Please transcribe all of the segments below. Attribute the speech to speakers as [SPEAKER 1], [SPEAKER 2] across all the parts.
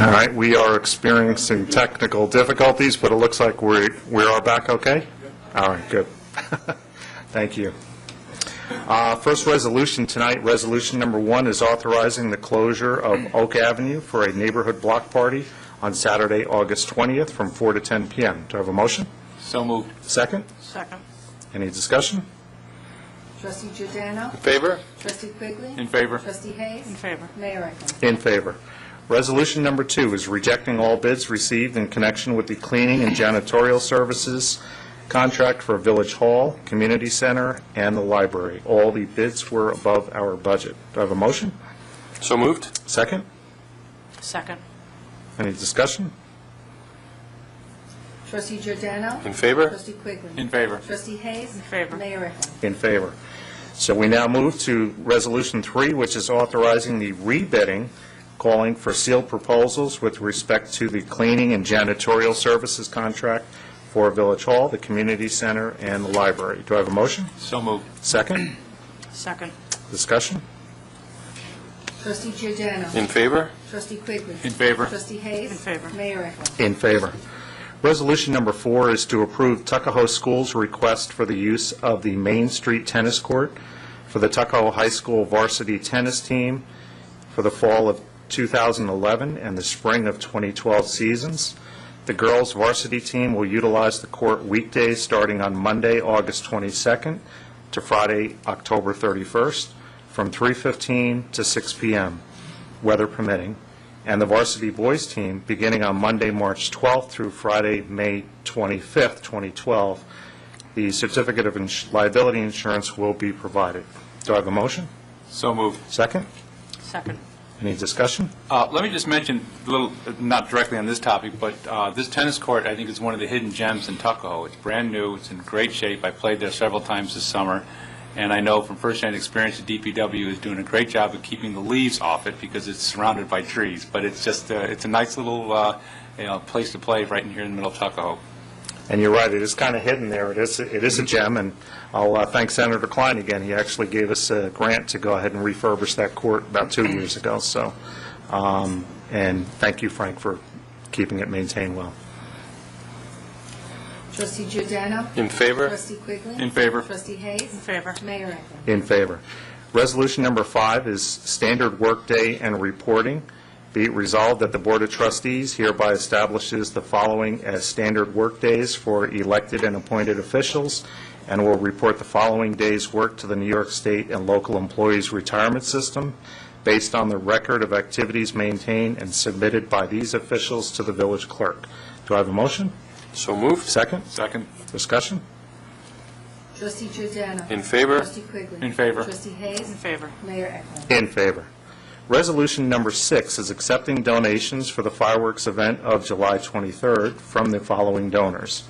[SPEAKER 1] All right, we are experiencing technical difficulties, but it looks like we we are back okay? All right, good. Thank you. Uh, First resolution tonight, resolution number one is authorizing the closure of Oak Avenue for a neighborhood block party on Saturday, August 20th, from 4 to 10 p.m. Do I have a motion?
[SPEAKER 2] So moved.
[SPEAKER 1] Second?
[SPEAKER 3] Second.
[SPEAKER 1] Any discussion?
[SPEAKER 4] Trustee Giordano.
[SPEAKER 2] Favor?
[SPEAKER 4] Trustee Quigley.
[SPEAKER 2] In favor.
[SPEAKER 4] Trustee Hayes. In
[SPEAKER 3] favor.
[SPEAKER 4] Mayor Eklund.
[SPEAKER 1] In favor. Resolution number two is rejecting all bids received in connection with the cleaning and janitorial services contract for Village Hall, Community Center, and the library. All the bids were above our budget. Do I have a motion?
[SPEAKER 2] So moved.
[SPEAKER 1] Second?
[SPEAKER 3] Second.
[SPEAKER 1] Any discussion?
[SPEAKER 4] Trustee Giordano.
[SPEAKER 2] In favor?
[SPEAKER 4] Trustee Quigley.
[SPEAKER 2] In favor.
[SPEAKER 4] Trustee Hayes. In
[SPEAKER 3] favor.
[SPEAKER 4] Mayor Eklund.
[SPEAKER 1] In favor. So we now move to Resolution 3, which is authorizing the rebidding, calling for sealed proposals with respect to the cleaning and janitorial services contract for Village Hall, the Community Center, and the library. Do I have a motion?
[SPEAKER 2] So moved.
[SPEAKER 1] Second?
[SPEAKER 3] Second.
[SPEAKER 1] Discussion?
[SPEAKER 4] Trustee Giordano.
[SPEAKER 2] In favor?
[SPEAKER 4] Trustee Quigley.
[SPEAKER 2] In favor.
[SPEAKER 4] Trustee Hayes.
[SPEAKER 3] In favor.
[SPEAKER 4] Mayor Eklund.
[SPEAKER 1] In favor. Resolution number four is to approve Tuckahoe School's request for the use of the Main Street Tennis Court for the Tuckahoe High School varsity tennis team for the fall of 2011 and the spring of 2012 seasons. The girls' varsity team will utilize the court weekdays starting on Monday, August 22nd to Friday, October 31st, from 3:15 to 6 p.m., weather permitting, and the varsity boys' team beginning on Monday, March 12th through Friday, May 25th, 2012. The certificate of ins- liability insurance will be provided. Do I have a motion?
[SPEAKER 2] So moved.
[SPEAKER 1] Second?
[SPEAKER 3] Second.
[SPEAKER 1] Any discussion?
[SPEAKER 2] Uh, Let me just mention, a little, not directly on this topic, but uh, this tennis court, I think, is one of the hidden gems in Tuckahoe. It's brand new, it's in great shape, I played there several times this summer, and I know from firsthand experience, the DPW is doing a great job of keeping the leaves off it because it's surrounded by trees, but it's just, uh, it's a nice little, uh, you know, place to play right in here in the middle of Tuckahoe.
[SPEAKER 1] And you're right, it is kind of hidden there. It is, it is a gem, and I'll uh, thank Senator Klein again. He actually gave us a grant to go ahead and refurbish that court about two years ago, so, um, and thank you, Frank, for keeping it maintained well.
[SPEAKER 4] Trustee Giordano.
[SPEAKER 2] In favor?
[SPEAKER 4] Trustee Quigley.
[SPEAKER 2] In favor.
[SPEAKER 4] Trustee Hayes. In
[SPEAKER 3] favor.
[SPEAKER 4] Mayor Eklund.
[SPEAKER 1] In favor. Resolution number five is standard workday and reporting. Be it resolved that the Board of Trustees hereby establishes the following as standard workdays for elected and appointed officials, and will report the following day's work to the New York State and local employees' retirement system based on the record of activities maintained and submitted by these officials to the village clerk. Do I have a motion?
[SPEAKER 2] So moved.
[SPEAKER 1] Second?
[SPEAKER 2] Second.
[SPEAKER 1] Discussion?
[SPEAKER 4] Trustee Giordano.
[SPEAKER 2] In favor?
[SPEAKER 4] Trustee Quigley.
[SPEAKER 2] In favor.
[SPEAKER 4] Trustee Hayes.
[SPEAKER 3] In favor.
[SPEAKER 4] Mayor Eklund.
[SPEAKER 1] In favor. Resolution number six is accepting donations for the fireworks event of July 23rd from the following donors.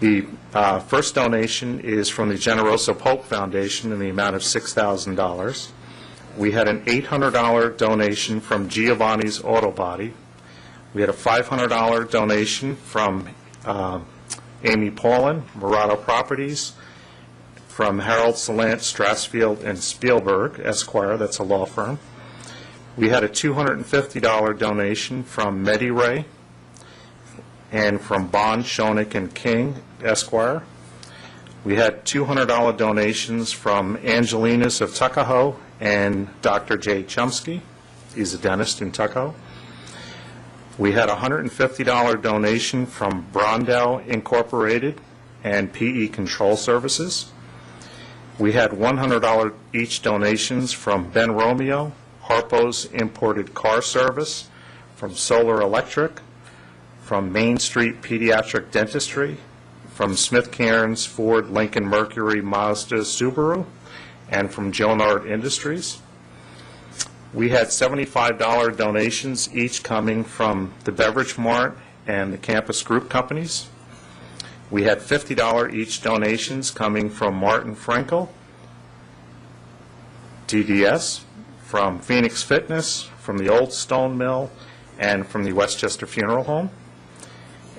[SPEAKER 1] The uh, first donation is from the Generoso Pope Foundation in the amount of $6,000. We had an $800 donation from Giovanni's Auto Body. We had a $500 donation from um, Amy Paulin, Murado Properties, from Harold Salant, Strassfield, and Spielberg Esquire, that's a law firm. We had a $250 donation from MediRay and from Bond, Shonik, and King Esquire. We had $200 donations from Angelinas of Tuckahoe and Dr. Jay Chumsky. He's a dentist in Tuckahoe. We had a $150 donation from Brondell Incorporated and PE Control Services. We had $100 each donations from Ben Romeo, Harpo's Imported Car Service, from Solar Electric, from Main Street Pediatric Dentistry, from Smith Cairns, Ford, Lincoln Mercury, Mazda, Subaru, and from Jonard Industries. We had $75 donations each coming from the Beverage Mart and the Campus Group Companies. We had $50 each donations coming from Martin Frankel, DDS, from Phoenix Fitness, from the Old Stone Mill, and from the Westchester Funeral Home.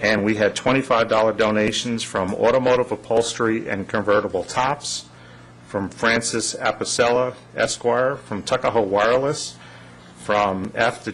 [SPEAKER 1] And we had $25 donations from Automotive Upholstery and Convertible Tops, from Francis Apicella Esquire, from Tuckahoe Wireless, from F.